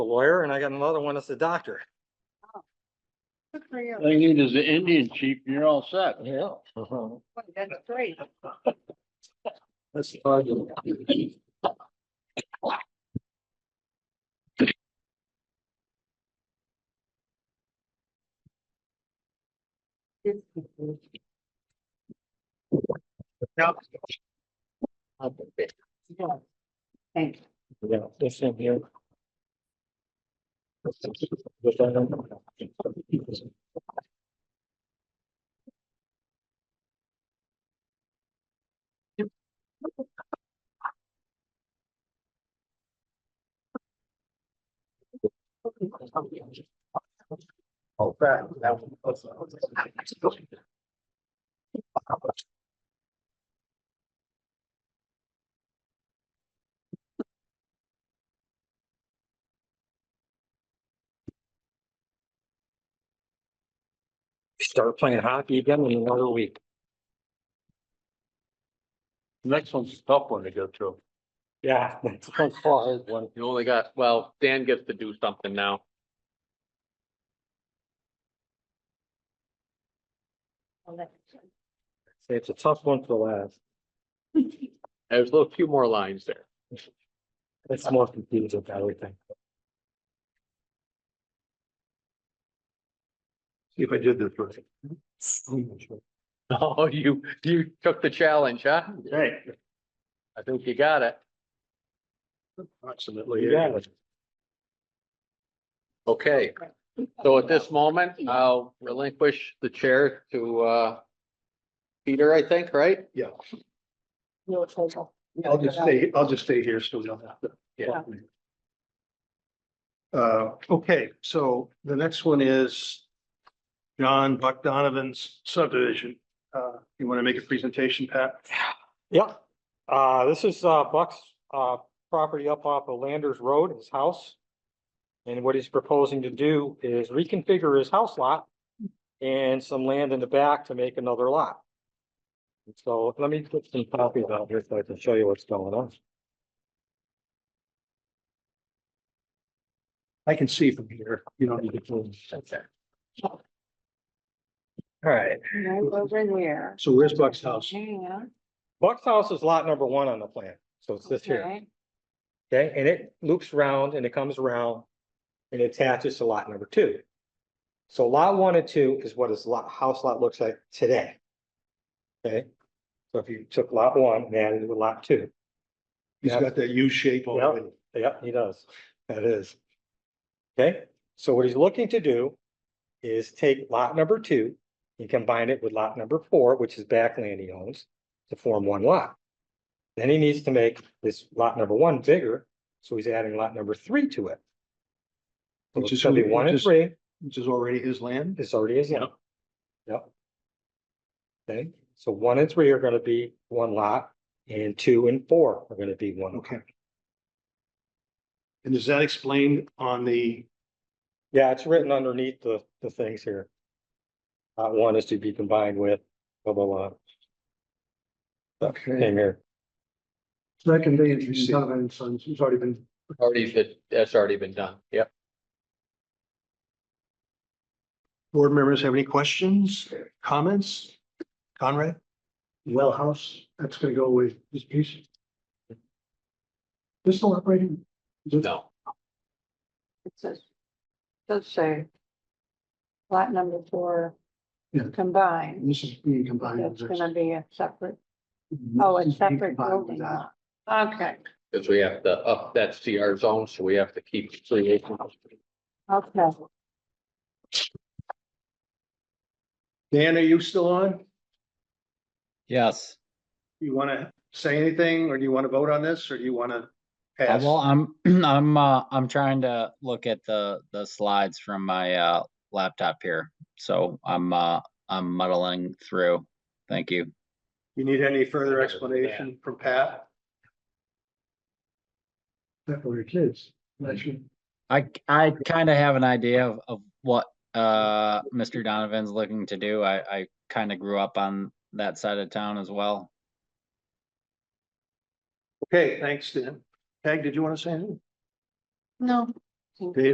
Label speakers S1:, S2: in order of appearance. S1: a lawyer and I got another one that's a doctor.
S2: Good for you.
S3: All you need is the Indian chief and you're all set.
S1: Yeah.
S2: Boy, That's great.
S1: That's fun.
S2: Yeah. Thank you.
S1: Yeah, this in here. Oh, that, that uh, was. Start playing hockey again in another week.
S3: Next one's a tough one to go through.
S1: Yeah. that's one hard one.
S4: You only got, well, Dan gets to do something now.
S2: Well, that's-
S1: Say It's a tough one for last.
S4: There's a little few more lines there.
S1: It's more confusing than everything.
S3: See if I did this right.
S4: Oh, you, you took the challenge, huh?
S3: Right,
S4: I think you got it.
S3: approximately.
S1: Yeah,
S4: Okay, so at this moment, I'll relinquish the chair to, uh, Peter, I think, right?
S2: Your total.
S3: I'll just stay, I'll just stay here so we don't have to.
S2: Yeah.
S3: Uh, okay, so the next one is John Buck Donovan's subdivision. Uh, you want to make a presentation, Pat?
S1: Yep, uh, this is, uh, Buck's, uh, property up off of Landers Road, his house. And what he's proposing to do is reconfigure his house lot and some land in the back to make another lot. So let me put some copies out here so I can show you what's going on.
S3: I can see from here, you don't need to.
S1: All right.
S2: Over there.
S3: So where's Buck's house?
S2: Yeah.
S1: Buck's house is lot number one on the plan, so it's this here.
S2: okay.
S1: Okay, and it loops round and it comes around and attaches to lot number two. So lot one and two is what his lot, house lot looks like today. Okay, so if you took lot one and added it with lot two,
S3: He's got that U shape already.
S1: Yep, he does. That is. Okay, so what he's looking to do is take lot number two and combine it with lot number four, which is back land he owns, to form one lot. Then he needs to make this lot number one bigger, so he's adding lot number three to it. So
S3: Which
S1: it's
S3: is
S1: gonna be
S3: really-
S1: one and
S3: just-
S1: three,
S3: Which is already his land?
S1: this already is in. Yep. Okay, so one and three are gonna be one lot, and two and four are gonna be one. lot.
S3: Okay. And is that explained on the,
S1: Yeah, it's written underneath the, the things here. Uh, one is to be combined with blah, blah, blah.
S5: Okay,
S1: Same here.
S5: that can be in Donovan Sons, who's already been,
S4: Already, did- that's already been done. Yep.
S3: board members have any questions, comments? Conrad?
S5: well house, that's gonna go with this piece. This still operating?
S4: No,
S2: It says, does say. Lot number four.
S5: Yeah.
S2: Combined,
S5: This is being combined. with
S2: that's
S5: this.
S2: gonna be a separate,
S5: This
S2: oh, a
S5: is being
S2: separate
S5: combined with
S2: building
S5: that.
S2: lot. Okay,
S4: because we have to up that CR zone, so we have to keep three acres.
S2: okay.
S3: Dan, are you still on?
S6: Yes,
S3: You want to say anything, or do you want to vote on this, or do you want to
S6: Uh,
S3: pass?
S6: well, I'm, I'm, uh, I'm trying to look at the, the slides from my, uh, laptop here. So I'm, uh, I'm muddling through. Thank you.
S3: You need any further explanation from Pat?
S5: That for your kids, that's your-
S6: I, c- I kind of have an idea of, of what, uh, Mr. Donovan's looking to do. I, I kind of grew up on that side of town as well.
S3: Okay, thanks, Dan. Peg, did you want to say anything?
S2: No, Dave?